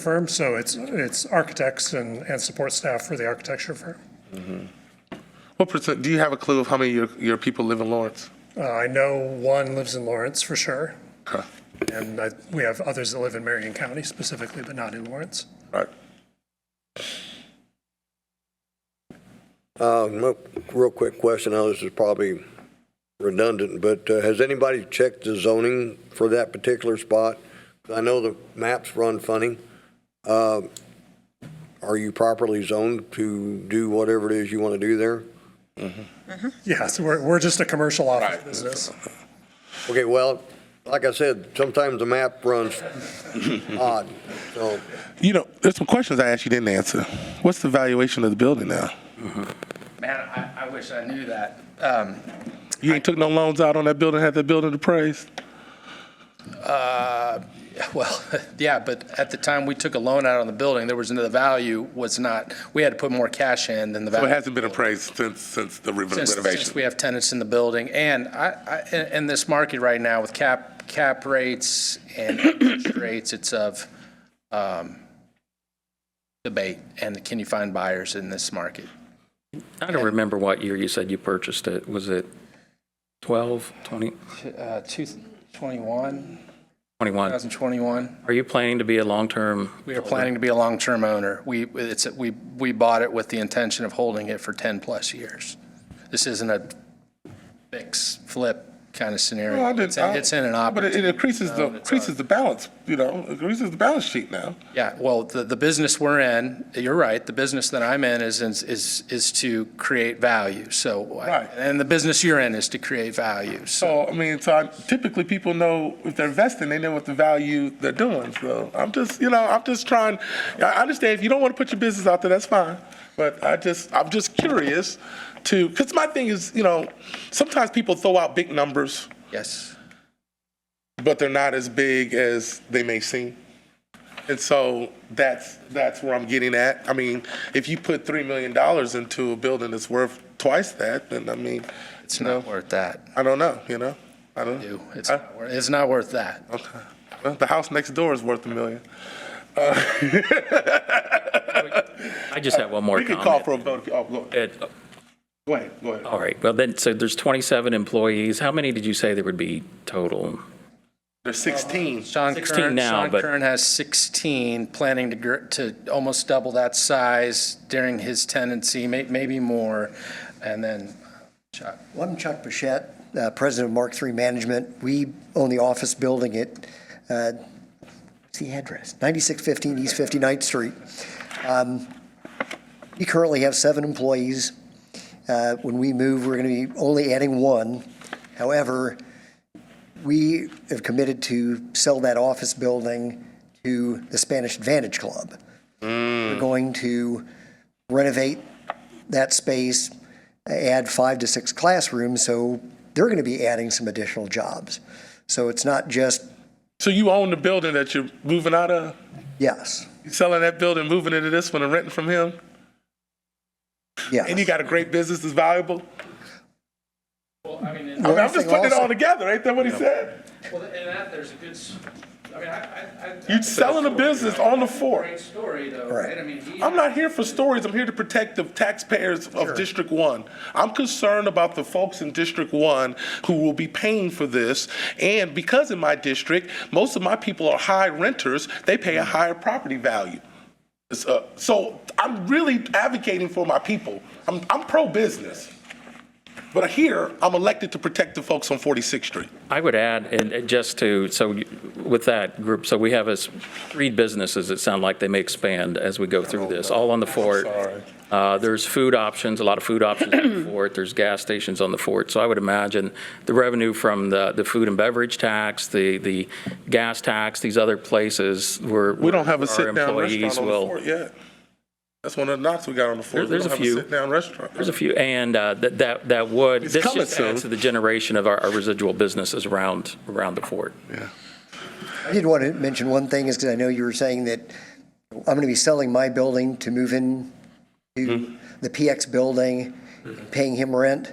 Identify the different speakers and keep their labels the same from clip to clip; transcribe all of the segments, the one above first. Speaker 1: firm, so it's, it's architects and, and support staff for the architecture firm.
Speaker 2: What percent, do you have a clue of how many of your, your people live in Lawrence?
Speaker 1: Uh, I know one lives in Lawrence for sure,
Speaker 2: Okay,
Speaker 1: and I, we have others that live in Marion County specifically, but not in Lawrence.
Speaker 2: right.
Speaker 3: Uh, no- Real quick question, now this is probably redundant, but uh, has anybody checked the zoning for that particular spot? I know the maps run funny. Uh, Are you properly zoned to do whatever it is you want to do there?
Speaker 1: Yeah, so we're, we're just a commercial office
Speaker 2: Right.
Speaker 1: business.
Speaker 3: Okay, well, like I said, sometimes the map runs odd, so
Speaker 2: You know, there's some questions I asked you didn't answer. What's the valuation of the building now?
Speaker 4: Man, I, I wish I knew that. Um,
Speaker 2: You ain't took no loans out on that building, had that building appraised?
Speaker 4: well, yeah, but at the time we took a loan out on the building, there was, no- the value was not, we had to put more cash in than the
Speaker 2: Well, it
Speaker 4: value.
Speaker 2: hasn't been appraised since, since the re-
Speaker 4: Since, since we
Speaker 2: renovation.
Speaker 4: have tenants in the building, and I, I, in, in this market right now with cap, cap rates and interest rates, it's of, um, debate, and can you find buyers in this market?
Speaker 5: I don't remember what year you said you purchased it. Was it 12, 20,
Speaker 4: Uh, two, twenty-one,
Speaker 5: 21?
Speaker 4: thousand twenty-one?
Speaker 5: Are you planning to be a long-term?
Speaker 4: We are planning to be a long-term owner. We, it's, we, we bought it with the intention of holding it for 10-plus years. This isn't a fix, flip kind of scenario.
Speaker 2: Well, I did-
Speaker 4: It's in- it's in an um,
Speaker 2: But it- it
Speaker 4: opportunity.
Speaker 2: increases the, increases the balance, you know, increases the balance sheet now.
Speaker 4: Yeah, well, the, the business we're in, you're right, the business that I'm in is, is, is to create value, so.
Speaker 2: Right.
Speaker 4: And the business you're in is to create value, so.
Speaker 2: So, I mean, so I- typically people know if they're investing, they know what the value they're doing. So I'm just, you know, I'm just trying, I understand if you don't want to put your business out there, that's fine. But I just, I'm just curious to, because my thing is, you know, sometimes people throw out big numbers,
Speaker 4: Yes,
Speaker 2: but they're not as big as they may seem. And so that's, that's where I'm getting at. I mean, if you put $3 million into a building that's worth twice that, then I mean,
Speaker 4: it's not worth that.
Speaker 2: I don't know, you know? I don't know.
Speaker 4: Ew, It's, not worth- it's not worth that.
Speaker 2: Okay. Well, the house next door is worth a million.
Speaker 5: I just have one more
Speaker 2: We could call
Speaker 5: comment. Oh.
Speaker 2: for a vote. if- Oh, go ahead.
Speaker 5: It-
Speaker 2: Go ahead, go ahead.
Speaker 5: All right, well then, so there's 27 employees. How many did you say there would be total?
Speaker 2: There's 16.
Speaker 4: Sean
Speaker 5: 16
Speaker 4: Kern,
Speaker 5: now,
Speaker 4: Sean
Speaker 5: but-
Speaker 4: Kern has 16, planning to, gr- to almost double that size during his tenancy, may, maybe more. And then, Chuck,
Speaker 6: Well, I'm Chuck Bichette, uh, president of Mark III Management. We own the office building at, uh, what's the address? 9615 East 59th Street. Um, We currently have seven employees. Uh, When we move, we're going to be only adding one. However, we have committed to sell that office building to the Spanish Advantage Club. We're going to renovate that space, add five to six classrooms, so they're going to be adding some additional jobs. So it's not just
Speaker 2: So you own the building that you're moving out of?
Speaker 6: yes,
Speaker 2: You selling that building, moving into this one and renting from him? And you
Speaker 6: yes.
Speaker 2: got a great business that's valuable? I mean,
Speaker 6: One
Speaker 2: I'm just
Speaker 6: thing
Speaker 2: putting it
Speaker 6: also-
Speaker 2: all together. Ain't that what he said?
Speaker 4: Well, and that, there's a good, s- I mean, I, I- I.
Speaker 2: You selling a business on the fort.
Speaker 4: Great story though,
Speaker 6: Right.
Speaker 4: right? I mean, he.
Speaker 2: I'm not here for stories. I'm here to protect the taxpayers of District One. I'm concerned about the folks in District One who will be paying for this. And because in my district, most of my people are high renters, they pay a higher property value. It's, uh, So I'm really advocating for my people. I'm, I'm pro-business. But here, I'm elected to protect the folks on 46th Street.
Speaker 5: I would add, and and just to, so you- with that group, so we have us three businesses that sound like they may expand as we go through this, all on the fort. Uh, There's food options, a lot of food options on the fort, there's gas stations on the fort. So I would imagine the revenue from the, the food and beverage tax, the, the gas tax, these other places where.
Speaker 2: We don't have
Speaker 5: our
Speaker 2: a sit-down
Speaker 5: employees
Speaker 2: restaurant on the
Speaker 5: will-
Speaker 2: fort yet. That's one of the knocks we got on the fort.
Speaker 5: There- there's a few.
Speaker 2: We don't have a sit-down restaurant.
Speaker 5: There's a few, and uh, that, that that would,
Speaker 2: It's
Speaker 5: this
Speaker 2: coming
Speaker 5: just
Speaker 2: soon.
Speaker 5: adds to the generation of our our residual businesses around, around the fort.
Speaker 6: I did want to mention one thing is because I know you were saying that I'm going to be selling my building to move in
Speaker 2: Mm-hmm.
Speaker 6: to the PX building, paying him rent.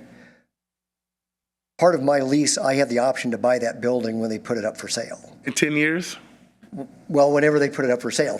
Speaker 6: Part of my lease, I have the option to buy that building when they put it up for sale.
Speaker 2: In 10 years?
Speaker 6: Well, whenever they put it up for sale,